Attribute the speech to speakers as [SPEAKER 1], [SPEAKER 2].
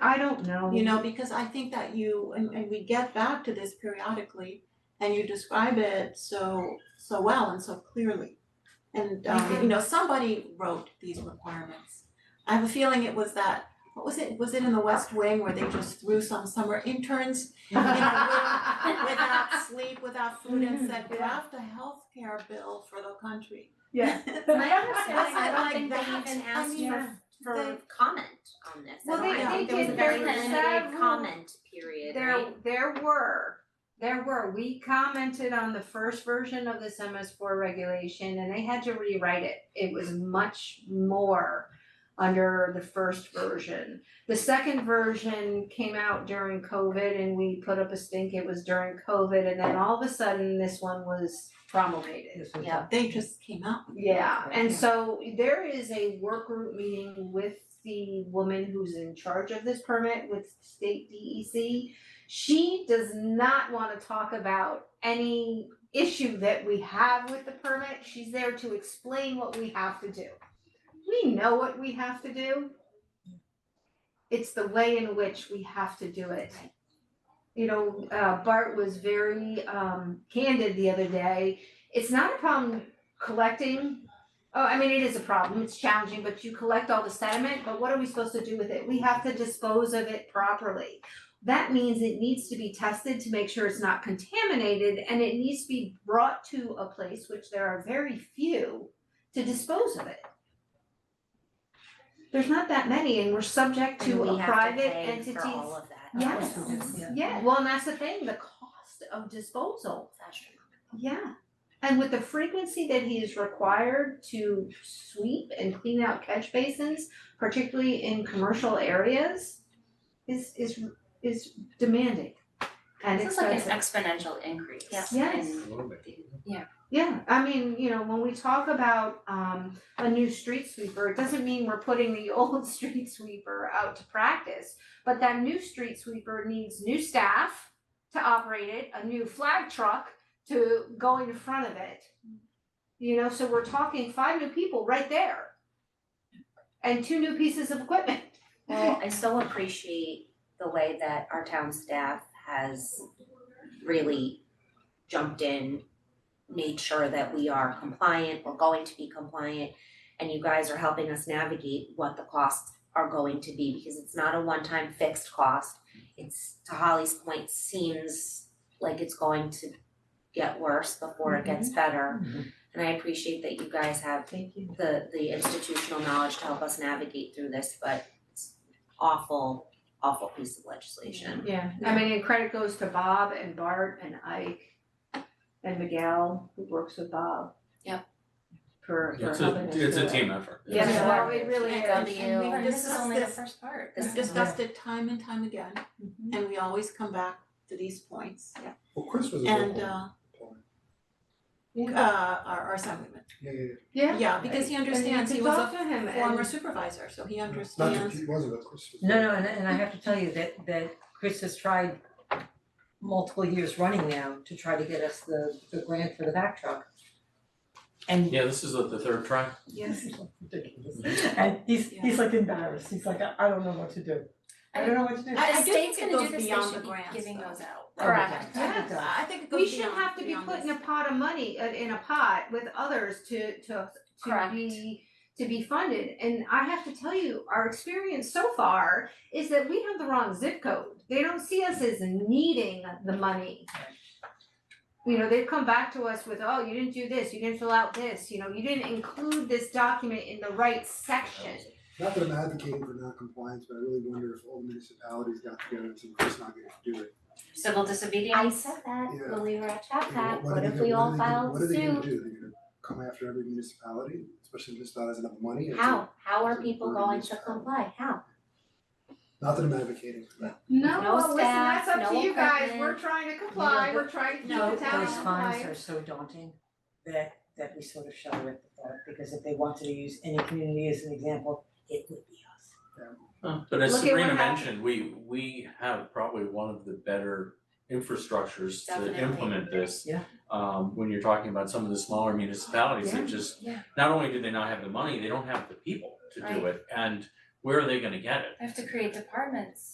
[SPEAKER 1] I don't know.
[SPEAKER 2] Um,
[SPEAKER 3] You know, because I think that you, and and we get back to this periodically and you describe it so so well and so clearly. And um, you know, somebody wrote these requirements. I have a feeling it was that, what was it, was it in the West Wing where they just threw some summer interns without sleep, without food and said,
[SPEAKER 1] Mhm, yeah.
[SPEAKER 3] draft a healthcare bill for the country?
[SPEAKER 1] Yeah.
[SPEAKER 4] My understanding, I
[SPEAKER 3] That's
[SPEAKER 4] don't
[SPEAKER 3] like
[SPEAKER 4] think
[SPEAKER 3] that.
[SPEAKER 4] they even
[SPEAKER 3] I
[SPEAKER 4] asked
[SPEAKER 3] mean,
[SPEAKER 4] for for
[SPEAKER 3] they-
[SPEAKER 4] comment on this at
[SPEAKER 2] Well,
[SPEAKER 4] all.
[SPEAKER 3] they-
[SPEAKER 4] I
[SPEAKER 3] they
[SPEAKER 4] think there was a
[SPEAKER 3] did
[SPEAKER 4] very
[SPEAKER 3] their
[SPEAKER 2] several-
[SPEAKER 4] limited comment period,
[SPEAKER 2] There,
[SPEAKER 4] right?
[SPEAKER 2] there were, there were, we commented on the first version of this MS four regulation and they had to rewrite it. It was much more under the first version. The second version came out during COVID and we put up a stink, it was during COVID, and then all of a sudden, this one was promulgated.
[SPEAKER 4] Yeah.
[SPEAKER 3] They just came out with it.
[SPEAKER 2] Yeah, and so there is a work group meeting with the woman who's in charge of this permit with state DEC. She does not wanna talk about any issue that we have with the permit, she's there to explain what we have to do. We know what we have to do. It's the way in which we have to do it. You know, uh Bart was very um candid the other day, it's not a problem collecting. Oh, I mean, it is a problem, it's challenging, but you collect all the sediment, but what are we supposed to do with it? We have to dispose of it properly. That means it needs to be tested to make sure it's not contaminated and it needs to be brought to a place, which there are very few, to dispose of it. There's not that many and we're subject to a private
[SPEAKER 4] And we have to pay
[SPEAKER 2] entity's.
[SPEAKER 4] for all of that.
[SPEAKER 2] Yes,
[SPEAKER 1] Yeah.
[SPEAKER 2] yeah, well, and that's the thing, the cost of disposal.
[SPEAKER 4] It's astronomical.
[SPEAKER 2] Yeah, and with the frequency that he is required to sweep and clean out catch basins, particularly in commercial areas, is is is demanding and
[SPEAKER 4] This is like an
[SPEAKER 2] expensive.
[SPEAKER 4] exponential increase.
[SPEAKER 2] Yes.
[SPEAKER 4] in-
[SPEAKER 2] Yeah, I mean, you know, when we talk about um a new street sweeper, it doesn't mean we're putting the old street sweeper out to practice. But that new street sweeper needs new staff to operate it, a new flag truck to go in front of it. You know, so we're talking five new people right there. And two new pieces of equipment.
[SPEAKER 4] Well, I so appreciate the way that our town staff has really jumped in, made sure that we are compliant, we're going to be compliant, and you guys are helping us navigate what the costs are going to be, because it's not a one-time fixed cost. It's, to Holly's point, seems like it's going to get worse before it gets better. And I appreciate that you guys have
[SPEAKER 2] Thank you.
[SPEAKER 4] the the institutional knowledge to help us navigate through this, but it's awful, awful piece of legislation.
[SPEAKER 2] Yeah, I mean, and credit goes to Bob and Bart and Ike and Miguel, who works with Bob.
[SPEAKER 4] Yep.
[SPEAKER 2] For for
[SPEAKER 5] It's a,
[SPEAKER 2] helping us
[SPEAKER 5] it's a
[SPEAKER 2] do it.
[SPEAKER 5] team effort.
[SPEAKER 2] Yeah,
[SPEAKER 3] Yeah.
[SPEAKER 2] well, it really is.
[SPEAKER 3] And- and we've
[SPEAKER 4] But this is
[SPEAKER 3] discussed
[SPEAKER 4] only the
[SPEAKER 3] this.
[SPEAKER 4] first part.
[SPEAKER 3] We've discussed it time and time again,
[SPEAKER 2] Mhm.
[SPEAKER 3] and we always come back to these points.
[SPEAKER 6] Well, Chris was a good
[SPEAKER 3] And
[SPEAKER 6] point.
[SPEAKER 3] uh,
[SPEAKER 2] Yeah.
[SPEAKER 3] uh, our, our assemblyman,
[SPEAKER 6] Yeah, yeah,
[SPEAKER 2] Yeah.
[SPEAKER 3] yeah, because he understands, he was
[SPEAKER 2] talk
[SPEAKER 3] a
[SPEAKER 2] to him
[SPEAKER 3] former
[SPEAKER 2] and,
[SPEAKER 3] supervisor, so he
[SPEAKER 6] yeah. Not that
[SPEAKER 3] understands.
[SPEAKER 6] he wasn't, but Chris was.
[SPEAKER 7] No, no, and and I have to tell you that that Chris has tried multiple years running now to try to get us the the grant for the back truck. And
[SPEAKER 5] Yeah, this is the, the third try.
[SPEAKER 2] yes,
[SPEAKER 7] ridiculous, and he's he's like embarrassed, he's like, I I don't know what to do, I don't know what to do.
[SPEAKER 3] I- I
[SPEAKER 2] The
[SPEAKER 3] do
[SPEAKER 2] state's
[SPEAKER 3] think it
[SPEAKER 2] gonna do
[SPEAKER 3] goes
[SPEAKER 2] this, they
[SPEAKER 3] beyond
[SPEAKER 2] should
[SPEAKER 3] the
[SPEAKER 2] be
[SPEAKER 3] grants.
[SPEAKER 4] giving
[SPEAKER 3] though.
[SPEAKER 4] those out.
[SPEAKER 7] Correct.
[SPEAKER 3] Yeah, I think it goes
[SPEAKER 2] we should
[SPEAKER 3] beyond-
[SPEAKER 2] have to be
[SPEAKER 3] beyond
[SPEAKER 2] put in
[SPEAKER 3] this.
[SPEAKER 2] a pot of money, uh, in a pot with others to to to
[SPEAKER 4] Correct.
[SPEAKER 2] be to be funded, and I have to tell you, our experience so far is that we have the wrong zip code, they don't see us as needing the money. You know, they've come back to us with, oh, you didn't do this, you didn't fill out this, you know, you didn't include this document in the right section.
[SPEAKER 6] Not that I'm advocating for non-compliance, but I really wonder if all the municipalities got together and said, Chris not gonna do it.
[SPEAKER 4] Civil
[SPEAKER 8] I
[SPEAKER 4] disobedience.
[SPEAKER 8] said that
[SPEAKER 6] Yeah.
[SPEAKER 8] when we were at Chat
[SPEAKER 6] You know,
[SPEAKER 8] Pack,
[SPEAKER 6] are
[SPEAKER 8] what
[SPEAKER 6] they
[SPEAKER 8] if
[SPEAKER 6] gonna-
[SPEAKER 8] we all
[SPEAKER 6] what are they gonna-
[SPEAKER 8] filed suit?
[SPEAKER 6] What are they gonna do? They're gonna come after every municipality, especially if it's not as enough money. It's a-
[SPEAKER 8] How, how
[SPEAKER 6] it's
[SPEAKER 8] are
[SPEAKER 6] a
[SPEAKER 8] people
[SPEAKER 6] burden
[SPEAKER 8] going
[SPEAKER 6] it's
[SPEAKER 8] to
[SPEAKER 6] a-
[SPEAKER 8] comply? How?
[SPEAKER 6] Not that I'm advocating for that.
[SPEAKER 2] No,
[SPEAKER 8] No
[SPEAKER 2] well, listen,
[SPEAKER 8] staff,
[SPEAKER 2] that's up to
[SPEAKER 8] no
[SPEAKER 2] you guys,
[SPEAKER 8] equipment.
[SPEAKER 2] we're trying to comply,
[SPEAKER 7] Yeah,
[SPEAKER 2] we're trying to keep the
[SPEAKER 3] no,
[SPEAKER 2] town
[SPEAKER 3] That was
[SPEAKER 7] Those
[SPEAKER 2] compliant.
[SPEAKER 7] fines are so daunting that that we sort of shudder at the thought, because if they wanted to use any community as an example, it would be us.
[SPEAKER 5] Uh, But as
[SPEAKER 2] Look at
[SPEAKER 5] Sabrina
[SPEAKER 2] what happened.
[SPEAKER 5] mentioned, we, we have probably one of the better infrastructures to
[SPEAKER 4] Definitely.
[SPEAKER 5] implement this.
[SPEAKER 7] Yeah.
[SPEAKER 5] Um, when you're talking about some of the smaller municipalities that just,
[SPEAKER 4] Yeah.
[SPEAKER 5] not only do they not have the money, they don't have the people to do it. And where are they gonna get it?
[SPEAKER 8] I have to create departments.